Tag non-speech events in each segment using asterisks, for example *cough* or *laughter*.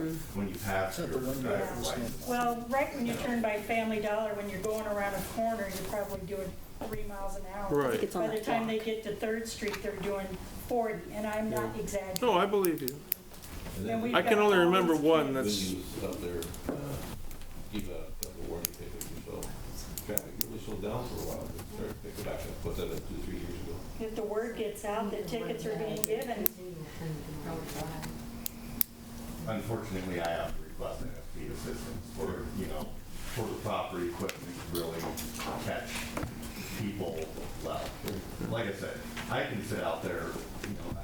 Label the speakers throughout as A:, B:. A: when you pass your
B: Not Mm-hmm. the one
A: driver's
B: that-
A: license.
C: Well, right when you turn by Family Dollar, when you're going around a corner, you're probably doing three miles an hour.
D: Right. I think
E: it's on
C: By the
E: that
C: time they
E: block.
C: get to Third Street, they're doing 40, and I'm not exaggerating.
D: No, I believe you.
F: And
C: Then
F: then
C: we-
D: I can only remember one
F: the
D: that's,
F: venues out there, uh, give a couple warning tickets or so. Traffic really slowed down for a while, but start, they go back up, put that up two, three years ago.
C: If the word gets out that tickets are being given,
A: Unfortunately, I have to request NFP assistance for, you know, for the proper equipment to really catch people loud. Like I said, I can sit out there, you know,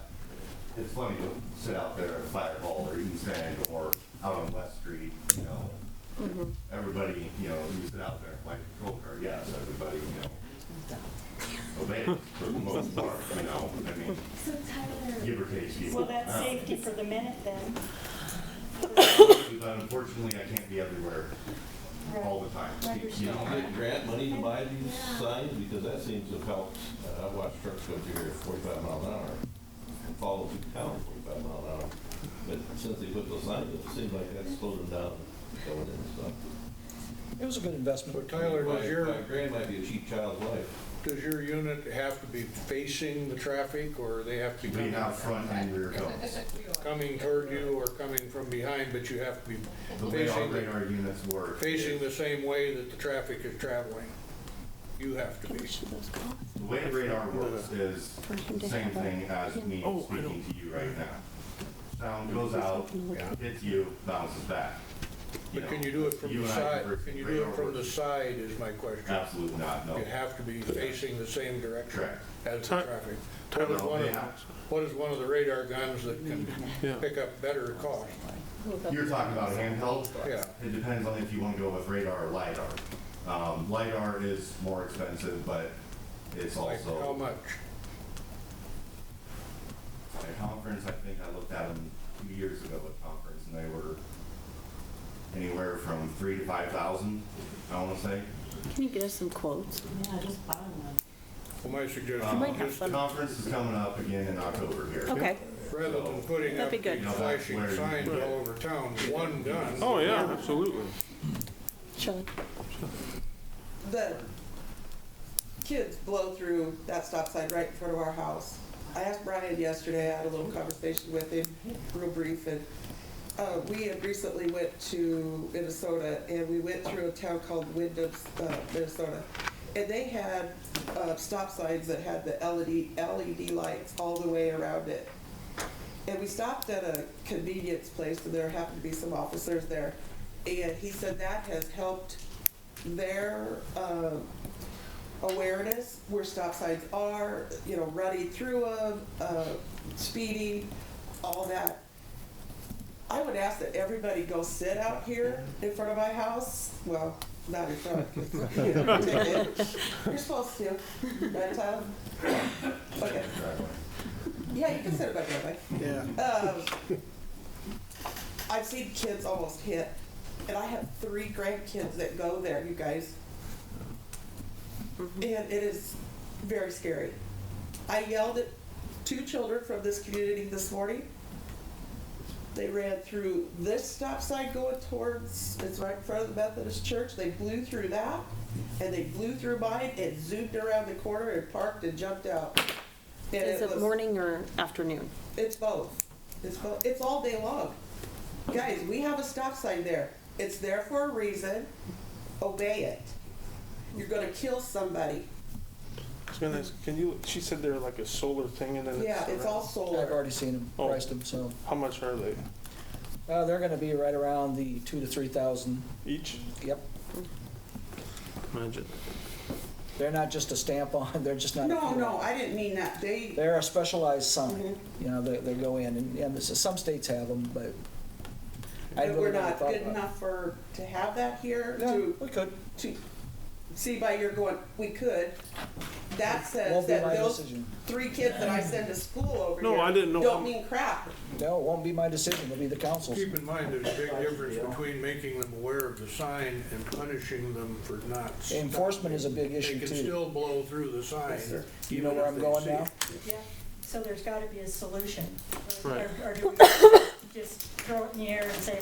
A: it's funny to sit out there at Fireball or East End or out on West Street, you know. Everybody, you know, you sit out there and play control car, yes, everybody, you know, obeys for the most part, you know, I mean, give or take people.
C: well, that's
A: Uh,
C: safety for the minute then.
A: but unfortunately, I can't be everywhere all the time. You know,
F: Get
A: I-
F: grant money to buy these signs, because that seems to help, Uh, I've watched trucks go through here at forty-five mile an hour, and follow through town at forty-five mile an hour. But since they put those signs, up, it seems like that slowed them down going in and stuff.
B: It was a good
G: So
B: investment.
G: Tyler,
F: My-
G: does your,
F: my Grand might be a cheap child's life.
G: does your unit have to be facing the traffic, or they have to be
A: We
G: coming-
A: have front and
G: *laughs*
A: rear cones.
G: coming toward you or coming from behind, but you have to be
A: The way our
G: facing,
A: radar units work.
G: facing the
A: is-
G: same way that the traffic is traveling? You have to be.
A: The way radar works is
E: Person
A: the
E: to
A: same
E: have a-
A: thing as me
D: Oh, I
A: speaking to you right now. Sound goes out,
G: Yeah.
A: hits you, bounces back.
G: But can
A: know,
G: you do it from
A: you
G: the
A: and I
G: side,
A: converse-
G: can you do
A: radar
G: it from the
A: works.
G: side is my question.
A: Absolutely not, no.
G: You have to be facing the same direction
A: Correct.
G: as the
D: Ty-
G: traffic. What is
A: No,
G: one
A: they
G: of,
A: have-
G: what is one of the radar guns that can
D: Yeah.
G: pick up better cost?
A: You're talking about handheld?
G: Yeah.
A: It depends on if you want to go with radar or LiDAR. Um, LiDAR is more expensive, but it's
G: Like,
A: also.
G: how much?
A: at a conference, I think I looked at them two years ago at conference, and they were anywhere from three to five thousand, I wanna say.
E: Can you get us some quotes?
G: Well, my suggestion
E: might
A: Um,
G: is
E: have
G: just
E: some.
A: Conference is coming up again in October here.
E: Okay.
G: Rather than putting up
E: That'd be
G: big
E: good.
G: flashing
A: Where you-
G: signs all over town, one gun.
D: oh, yeah, absolutely.
E: Shelley?
H: the kids blow through that stop sign right in front of our house. I asked Brian yesterday, I had a little conversation with him, real brief, and uh, we had recently went to Minnesota, and we went through a town called Wyndham, uh, Minnesota. And they had uh, stop signs that had the E LED, LED lights all the way around it. And we stopped at a convenience place, and there happened to be some officers there. And he said that has helped their um, awareness, where stop signs are, you know, running through them, uh, speeding, all that. I would ask that everybody go sit out here in front of my house, well, not in front, 'cause, you know, ticket. you're supposed to, right, Tyler? Okay,
A: Driveway.
H: yeah, you can sit back that way.
B: Yeah.
H: Um, I've seen kids almost hit, and I have three grandkids that go there, you guys.
E: Mm-hmm.
H: And it is very scary. I yelled at two children from this community this morning. They ran through this stop sign going towards, it's right in front of the Methodist church. They blew through that, and they blew through mine and zoomed around the corner and parked and jumped out. And
E: Is it
H: was-
E: morning or afternoon?
H: it's both. It's both. It's all day long. Guys, we have a stop sign there. It's there for a reason. Obey it. You're gonna kill somebody.
D: I was gonna ask, can you, she said they're like a solar thing and then it's.
H: Yeah, it's all
B: I've
H: solar.
B: already seen them,
D: Oh.
B: priced them, so,
D: How much are they?
B: uh, they're gonna be right around the two to three thousand,
D: Each?
B: yep.
D: Imagine.
B: They're not just a stamp on, *laughs* they're just not.
H: No, no, I didn't mean that. They,
B: They're a specialized sign,
H: Mhm.
B: you know, they, they go in, and, and this is- some states have them, but I
H: but we're
B: really never
H: not
B: thought
H: good
B: about it.
H: enough for, to have that here,
B: No,
H: to,
B: we could,
H: to, see by your going, we could. That says
B: won't be
H: that
B: my
H: those
B: decision.
H: three kids that I send to school over
D: No,
H: here
D: I didn't know how-
H: don't mean crap.
B: No, it won't be my decision, it'll be the council's.
G: Keep in mind, there's a big difference between making them aware of the sign and punishing them for not.
B: Enforcement is a
G: stopping.
B: big issue,
G: They can
B: too.
G: still blow through the sign.
H: sir.
B: You know where I'm going now?
C: So there's got to be a solution.
D: Right.
C: Or- or do we just throw it in the air and say,